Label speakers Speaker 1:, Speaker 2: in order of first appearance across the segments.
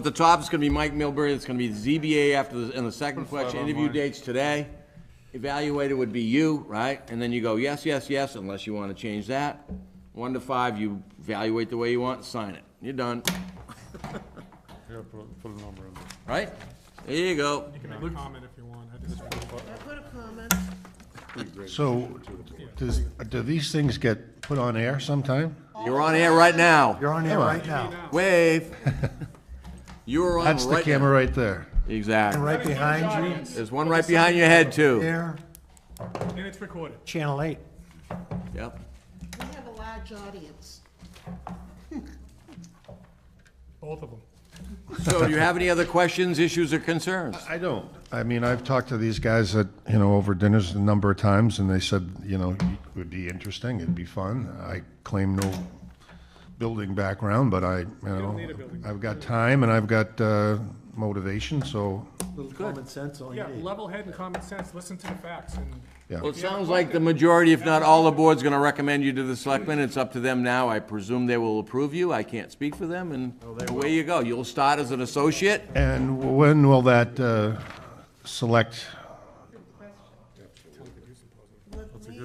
Speaker 1: At the top, it's gonna be Mike Milbury, it's gonna be ZBA after, the and the second question, interview dates today. Evaluator would be you, right? And then you go, yes, yes, yes, unless you wanna change that. One to five, you evaluate the way you want, sign it, you're done,
Speaker 2: Yeah, put, put a number in there.
Speaker 1: right? There you go.
Speaker 3: You can make a comment if you want. I just-
Speaker 4: So, does, do these things get put on air sometime?
Speaker 1: You're on air right now,
Speaker 5: You're on air right now.
Speaker 1: wave. You're on right
Speaker 4: That's the
Speaker 1: now.
Speaker 4: camera right there.
Speaker 5: And
Speaker 1: Exactly.
Speaker 5: right behind
Speaker 1: There's one right behind your head,
Speaker 5: you,
Speaker 1: too.
Speaker 5: there,
Speaker 3: And it's recorded.
Speaker 5: Channel 8.
Speaker 1: Yep.
Speaker 6: We have a large audience.
Speaker 3: Both of them.
Speaker 1: So do you have any other questions, issues, or concerns?
Speaker 4: I don't. I mean, I've talked to these guys at, you know, over dinners a number of times, and they said, you know, it would be interesting, it'd be fun. I claim no building background, but I, you know, I've got time and I've got, uh, motivation, so,
Speaker 5: Little common sense all you
Speaker 3: Yeah,
Speaker 5: need.
Speaker 3: level head and common sense, listen to the facts and.
Speaker 4: yeah.
Speaker 1: Well, it sounds like the majority, if not all the board's gonna recommend you to the selectmen. It's up to them now. I presume they will approve you. I can't speak for them, and away you go. You'll start as an associate.
Speaker 4: And when will that, uh, select,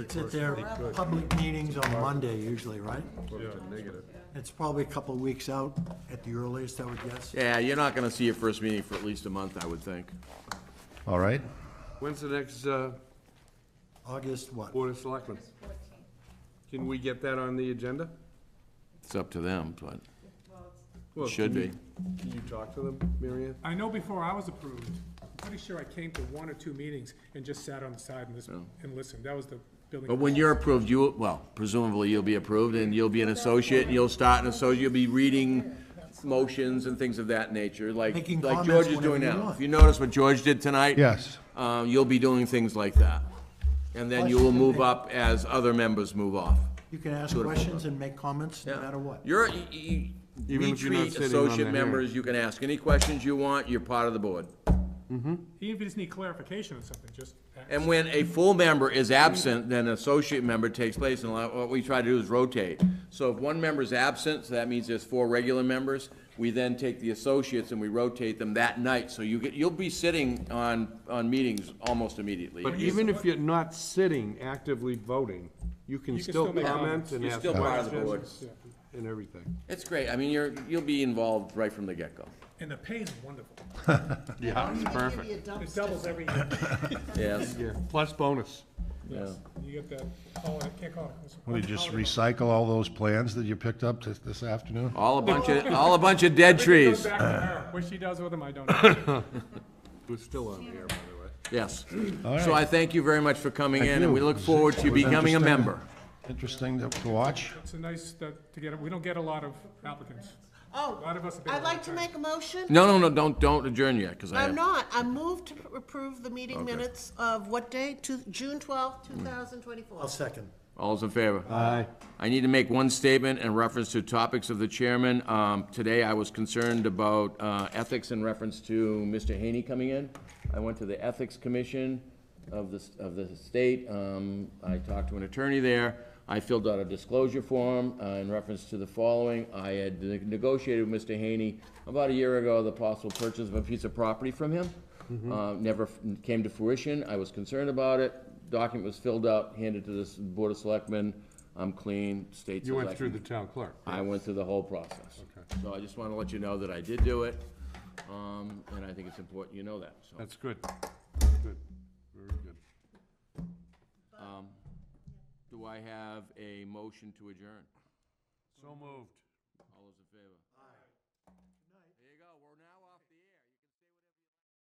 Speaker 5: Sit there, public meetings on Monday usually, right? It's probably a couple of weeks out at the earliest, I would guess.
Speaker 1: Yeah, you're not gonna see your first meeting for at least a month, I would think.
Speaker 4: all right?
Speaker 2: When's the next, uh,
Speaker 5: August what?
Speaker 2: Board of Selectmen? Can we get that on the agenda?
Speaker 1: It's up to them, but
Speaker 2: Well,
Speaker 1: it should
Speaker 2: can
Speaker 1: be.
Speaker 2: you- Can you talk to them, Mary Ann?
Speaker 3: I know before I was approved, I'm pretty sure I came to one or two meetings and just sat on the side and listened, and listened. That was the building.
Speaker 1: But when you're approved, you, well, presumably you'll be approved, and you'll be an associate, and you'll start an associate, you'll be reading motions and things of that nature, like,
Speaker 5: Making
Speaker 1: like
Speaker 5: comments
Speaker 1: George is doing
Speaker 5: whenever you
Speaker 1: now.
Speaker 5: want.
Speaker 1: If you notice what George did tonight?
Speaker 4: Yes.
Speaker 1: Uh, you'll be doing things like that. And then you will move up as other members move off.
Speaker 5: You can ask questions and make comments no matter what.
Speaker 1: You're, y- y-
Speaker 2: Even
Speaker 1: we
Speaker 2: if you're not
Speaker 1: treat
Speaker 2: sitting on the
Speaker 1: associate
Speaker 2: hearing.
Speaker 1: members, you can ask any questions you want, you're part of the board.
Speaker 3: Even if you just need clarification on something, just.
Speaker 1: And when a full member is absent, then an associate member takes place, and a lot- what we try to do is rotate. So if one member is absent, so that means there's four regular members, we then take the associates and we rotate them that night. So you get, you'll be sitting on, on meetings almost immediately.
Speaker 2: But even if you're not sitting actively voting, you can
Speaker 3: You can
Speaker 2: still
Speaker 3: still make
Speaker 2: comment
Speaker 3: comments.
Speaker 2: and
Speaker 1: You're
Speaker 2: ask
Speaker 1: still part of the
Speaker 2: questions and everything.
Speaker 1: It's great, I mean, you're, you'll be involved right from the get-go.
Speaker 3: And the pay's wonderful.
Speaker 2: Yeah, it's
Speaker 6: Maybe a dumpster.
Speaker 3: It doubles every year.
Speaker 1: Yes,
Speaker 2: Yeah, plus bonus.
Speaker 1: yeah.
Speaker 3: You get that, oh, I can't call it.
Speaker 4: Will you just recycle all those plans that you picked up this, this afternoon?
Speaker 1: All a bunch of, all a bunch of dead
Speaker 3: Everything goes
Speaker 1: trees.
Speaker 3: back to her. What she does with them, I don't know.
Speaker 2: We're still on the air, by the way.
Speaker 1: Yes.
Speaker 4: All
Speaker 1: So
Speaker 4: right.
Speaker 1: I thank you very much for coming in, and we
Speaker 4: you.
Speaker 1: look forward to you
Speaker 4: It was
Speaker 1: becoming a
Speaker 4: interesting-
Speaker 1: member.
Speaker 4: Interesting to- to watch.
Speaker 3: It's a nice, that, to get, we don't get a lot of applicants.
Speaker 6: Oh,
Speaker 3: lot of us have been
Speaker 6: I'd like to
Speaker 3: on
Speaker 6: make a motion.
Speaker 1: No, no, no, don't, don't adjourn yet, because I
Speaker 6: I'm
Speaker 1: have,
Speaker 6: not. I move to approve the meeting minutes of what day? Two- June twelfth, two thousand
Speaker 5: I'll
Speaker 6: twenty-four.
Speaker 5: second.
Speaker 1: all's in favor. Aye. I need to make one statement in reference to topics of the chairman. Um, Today, I was concerned about uh, ethics in reference to Mr. Haney coming in. I went to the Ethics Commission of the, of the state. Um, I talked to an attorney there. I filled out a disclosure form uh, in reference to the following. I had ne- negotiated with Mr. Haney about a year ago the possible purchase of a piece of property from him. Uh, Never f- came to fruition. I was concerned about it. Document was filled out, handed to this Board of Selectmen. I'm clean, state's
Speaker 2: You
Speaker 1: elected.
Speaker 2: went through the town clerk.
Speaker 1: I went through the whole process. So I just want to let you know that I did do it, um, and I think it's important you know that, so.
Speaker 2: That's good. Good, very good.
Speaker 1: Do I have a motion to adjourn?
Speaker 2: So moved.
Speaker 1: All those in favor?